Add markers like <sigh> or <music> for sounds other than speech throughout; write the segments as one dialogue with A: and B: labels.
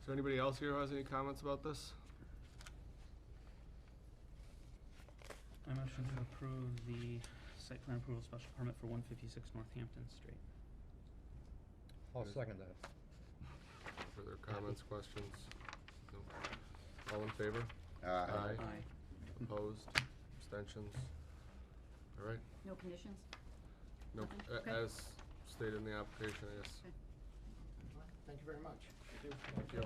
A: Is there anybody else here who has any comments about this?
B: I motion to approve the site plan approval special permit for one fifty-six Northampton Street.
C: I'll second that.
A: Further comments, questions? No. All in favor?
D: Aye.
B: Aye.
A: Opposed? Abstentions? All right.
E: No conditions?
A: No,
E: Nothing.
A: a-
E: Okay.
A: as stated in the application, I guess.
E: Okay.
C: Thank you very much.
A: Thank you.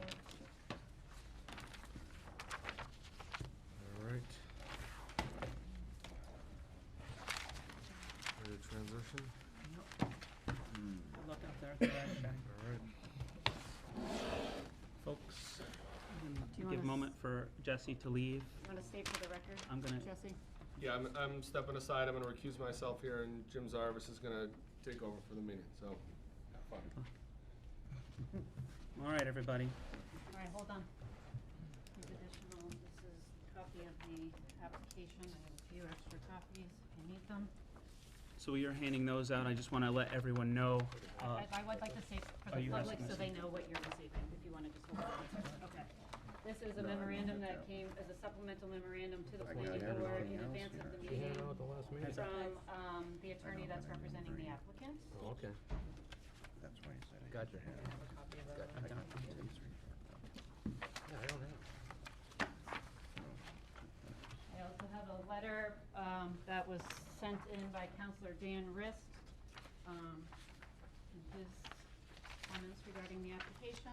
A: All right. Ready to transition?
B: Good luck out there at the <coughs> back, Jack.
A: All right.
B: Folks,
E: you
B: give
E: wanna
B: a moment
E: s-
B: for Jesse to leave.
E: Want to state for the record,
B: I'm gonna,
E: Jesse?
A: Yeah, I'm, I'm stepping aside, I'm gonna recuse myself here, and Jim Zarvis is gonna take over for the meeting, so. have fun.
B: all right, everybody.
E: All right, hold on. These additional, this is copy of the application. I have a few extra copies if you need them.
B: So you're handing those out, I just wanna let everyone know, uh,
E: I, I would like to say
B: Are
E: for the
B: you
E: public
B: asking
E: so
B: us
E: they know what you're receiving, if you want to just hold on. Okay. This is a
D: No, I didn't
E: memorandum
D: get that.
E: that came as a supplemental memorandum to the
D: I got
E: planning board
D: everything
E: in
D: else
E: advance of
D: here.
E: the
C: She
E: meeting
C: handed out the last meeting.
E: from, um, the attorney
D: know,
E: that's
D: but I didn't
E: representing the
D: bring it.
E: applicant.
C: Oh.
A: Okay.
D: That's why you said I.
C: Gotcha.
D: I got these three marked
C: Yeah, I don't have.
E: I also have a letter um, that was sent in by Counselor Dan Rist, um, and his comments regarding the application.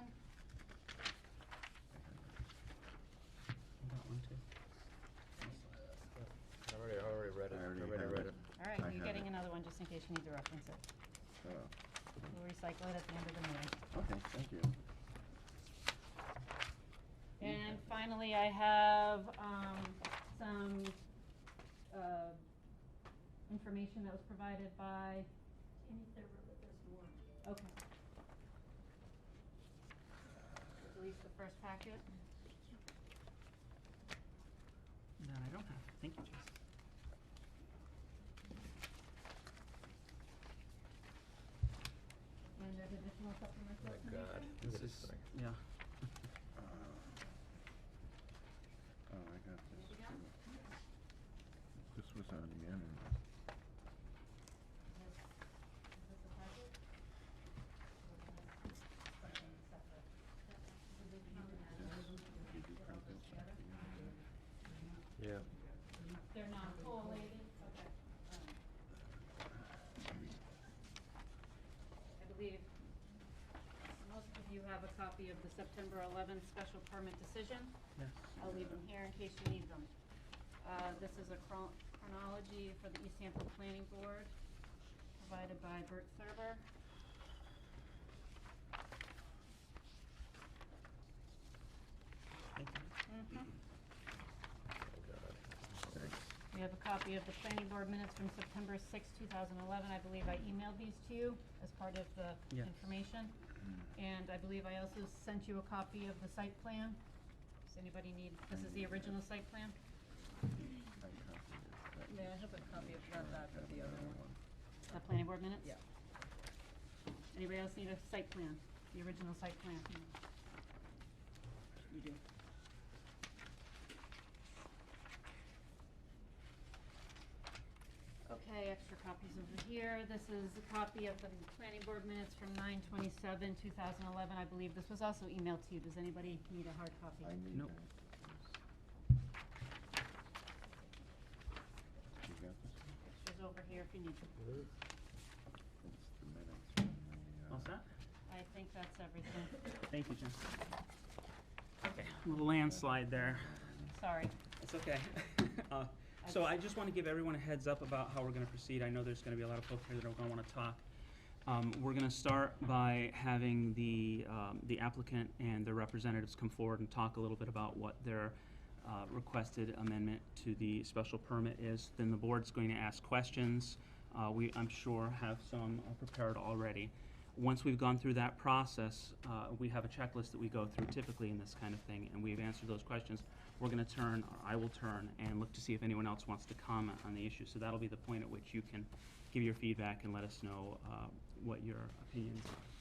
B: that one too.
C: I already, I already read it.
D: I already
C: already
D: have
C: read
D: it.
E: All right,
D: I
E: you're
D: have
E: getting
D: it.
E: another one just in case you need to reference it.
D: up.
E: We'll recycle it at the end of the meeting.
D: So, okay, thank you.
E: And finally, I have um, some uh, information that was provided by. Okay. Release the first packet.
B: No, I don't have, thank you, Jesse.
E: And there's additional supplemental
A: My God.
C: Look at
E: information?
B: This is,
C: thing.
B: yeah,
D: Uh, Oh, I got this.
E: Here we go.
D: too. This was on the end.
E: Is this- is this
D: Did you print
E: the packet? Or is this separate?
D: this off the end?
C: Yeah.
E: They're not collated, okay. Um, I believe most of you have a copy of the September eleventh special permit decision.
B: yes.
E: I'll leave them here in case you need them. Uh, this is a chron- chronology for the East Hampton Planning Board, provided by Bert Thurber.
B: Thank you.
E: Mm-hmm.
D: Thanks.
E: We have a copy of the planning board minutes from September sixth, two thousand eleven. I believe I emailed these to you as part of the
B: Yes.
E: information. And I believe I also sent you a copy of the site plan. Does anybody need, this is the original site plan?
D: I copied it, but
F: Yeah, I have a copy of that, that, but the other one.
E: The planning board minutes?
F: Yeah.
E: Anybody else need a site plan, the original site plan?
F: You do.
E: Okay, extra copies over here. This is a copy of the planning board minutes from nine twenty-seven, two thousand eleven. I believe this was also emailed to you. Does anybody need a hard copy?
D: I need
B: Nope.
D: that. You got this?
E: She's over here if you need
D: It's
E: them.
D: the minutes from the, uh.
B: All set?
E: I think that's everything.
B: Thank you, Jim. Okay, little landslide there.
E: Sorry.
B: It's okay. Uh, So I just want to give everyone a heads up about how we're going to proceed. I know there's going to be a lot of folks here that are going to want to talk. Um, We're going to start by having the um, the applicant and their representatives come forward and talk a little bit about what their uh, requested amendment to the special permit is. Then the board's going to ask questions. Uh, We, I'm sure, have some uh, prepared already. Once we've gone through that process, uh, we have a checklist that we go through typically in this kind of thing, and we've answered those questions. We're gonna turn, or I will turn, and look to see if anyone else wants to comment on the issue. So that'll be the point at which you can give your feedback and let us know uh, what your opinions are.